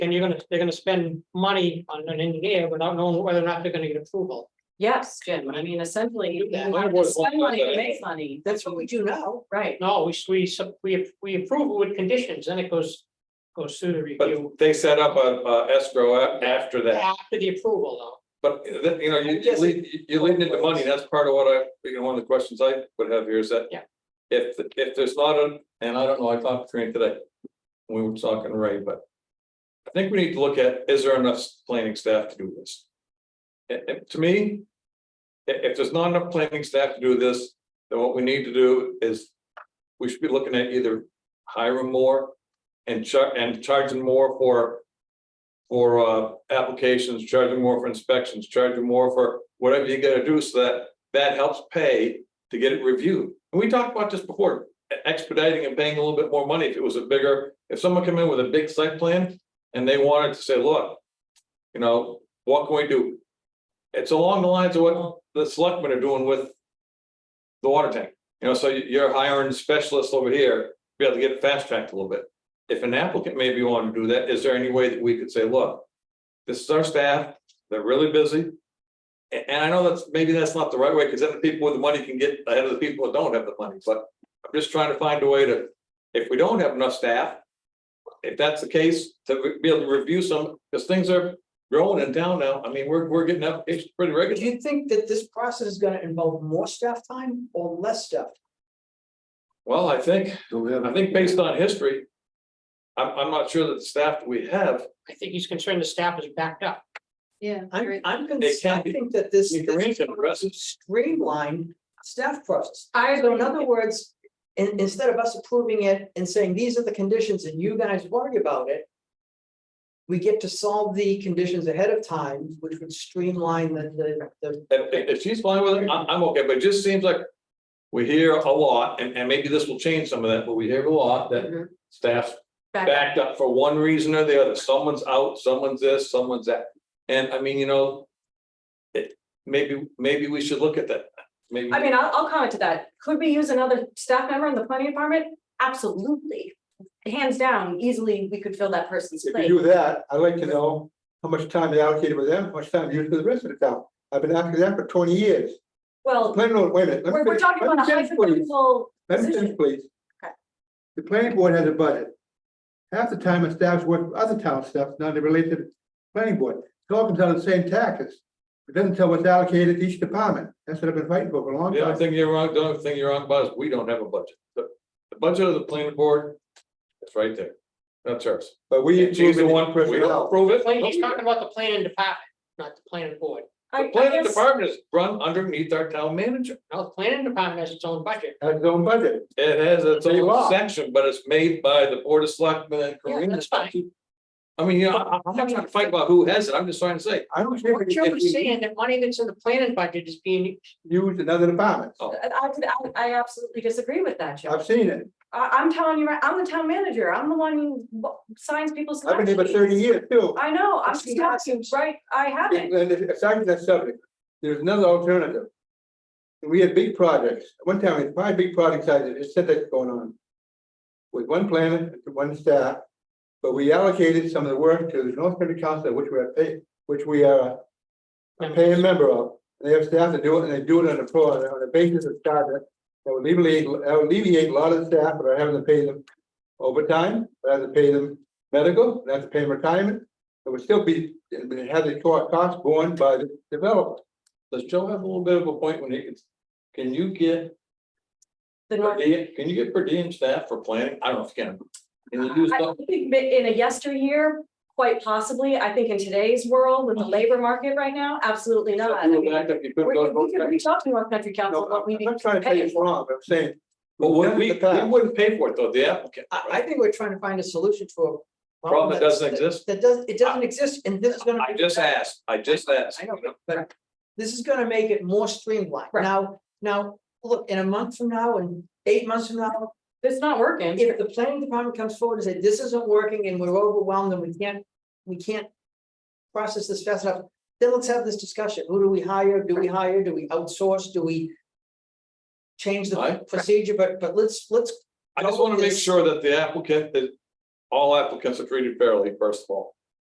then you're gonna, they're gonna spend money on an engineer without knowing whether or not they're gonna get approval. Yes, Jim, I mean, essentially, you Yeah. have to spend money to make money, That's what we do now. right? No, we, we, sub- we, we approve with conditions, then it goes, goes through the review But they set up a, a escrow a- after that, after the approval though. but that, you know, you, I'm guessing- lead- you're leading into money, that's part of what I, you know, one of the questions I would have here is that. Yeah. If, if there's not a, and I don't know, I talked to Trina today, we were talking to Ray, but. I think we need to look at, is there enough planning staff to do this? And, and to me. i- if there's not enough planning staff to do this, then what we need to do is. We should be looking at either hiring more and char- and charging more for for uh applications, charging more for inspections, charging more for whatever you gotta do so that that helps pay to get it reviewed. And we talked about this before, e-, expediting and paying a little bit more money if it was a bigger, if someone came in with a big site plan and they wanted to say, look, you know, what can we do? It's along the lines of what the selectmen are doing with the water tank. You know, so you- you're hiring specialists over here, to be able to get it fast tracked a little bit if an applicant maybe wanted to do that, is there any way that we could say, look, this is our staff, they're really busy. A- And, I know that's, maybe that's not the right way, because then the people with the money can get ahead of the people that don't have the money, but I'm just trying to find a way to, if we don't have enough staff, if that's the case, to re- be able to review some, because things are growing in town now. I mean, we're, we're getting applications pretty Do regularly. you think that this process is gonna involve more staff time or less staff? Well, I think, I think based on history, I'm, I'm not sure that the staff that we have, I think he's concerned the staff is backed up. Yeah. I'm, I'm, con- It I can't be- think that this. you can read this it, Russ. Streamline staff process. I So in other words, in, instead of us approving it and saying, these are the conditions and you guys worry about it. We get to solve the conditions ahead of time, which would streamline the, the, the. If, if- if she's fine with it, I'm, I'm okay, but it just seems like we hear a lot, and, and maybe this will change some of that, but we hear a lot that Mhm. staff's Back, backed up for one reason or the other. Someone's out, someone's this, someone's that. And I mean, you know, it, maybe, maybe we should look at that. Maybe, I mean, I'll, I'll comment to that. Could we use another staff member in the planning department? Absolutely. Hands down, easily, we could fill that person's If place. you do that, I'd like to know how much time they allocated with them, how much time used for the rest of the town. I've been asking that for twenty years. Well, Plan on, wait a minute. let me we're, we're finish- talking let about me a finish, please. hypothetical, Let me finish, please. Okay. The planning board has a budget. Half the time it staffs work with other town staff, not related to the planning board. It all comes out of the same taxes. It doesn't tell what's allocated to each department. That's what I've been fighting for for a long the other time. thing you're wrong, the other thing you're wrong about is we don't have a budget. The, the budget of the planning board, it's right there. That's ours. But we. And she's the approve it one, we don't personnel. approve it. Plan- He's talking about the planning department, not the planning board. I, The I planning guess, department is run underneath our town manager. Now, the planning department has its own budget. Has its own budget. It has its They own are. section, but it's made by the Board of Selectmen and Yeah, Karina. that's fine. I mean, you know, I- I'm not trying to fight about who has it, I'm just trying to say, I don't care What if Joe is you saying, that money that's in the planning budget is being, use another department. Oh. I, I- I absolutely disagree with that, Jim. I've seen it. I, I'm telling you, right, I'm the town manager. I'm the one who w- signs people's. I've been here for timesheets. thirty years too. I know, I'm It's just not- asking, right, I haven't, And if- aside from that subject, there's another alternative. We had big projects, one time, we had five big projects, I did, it's that's going on. With one planner, and one staff, but we allocated some of the work to the North Country Council, which we are pay, which we are. A paying member of, and they have staff to do it, and they do it on a pro, on a basis of charter. That would alleviate, that would alleviate a lot of the staff, that are having to pay them overtime, I have to pay them medical, I have to pay them retirement. It would still be, it would have the co- cost borne by the developer. does Joe have a little bit of a point when he can, can you get, the per North diem- can you get per diem staff for planning? I don't know if you can. Can you do I stuff? think that in a yesteryear, quite possibly, I think in today's world with the labor market right now, absolutely not. I You mean, go back up, you could We go could- we to- could reach out to North Country Council, No, what we I'm need. not trying to say it's wrong, but I'm saying. But we, we've done it we in the past. we wouldn't pay for it though, the applicant. I, I think we're trying to find a solution to a. Problem that doesn't that's- exist. That does, it doesn't exist and this is gonna. I be- just asked, I just asked. I know, but- but this is gonna make it more streamlined. Right. Now, now, look, in a month from now and eight months from now, It's not working. if the planning department comes forward and says, this isn't working and we're overwhelmed and we can't, we can't process this fast enough, then let's have this discussion. Who do we hire? Do we hire? Do we outsource? Do we change the Right. procedure? But, but let's, let's I just wanna make sure that the applicant, that all applicants are treated fairly, first of all.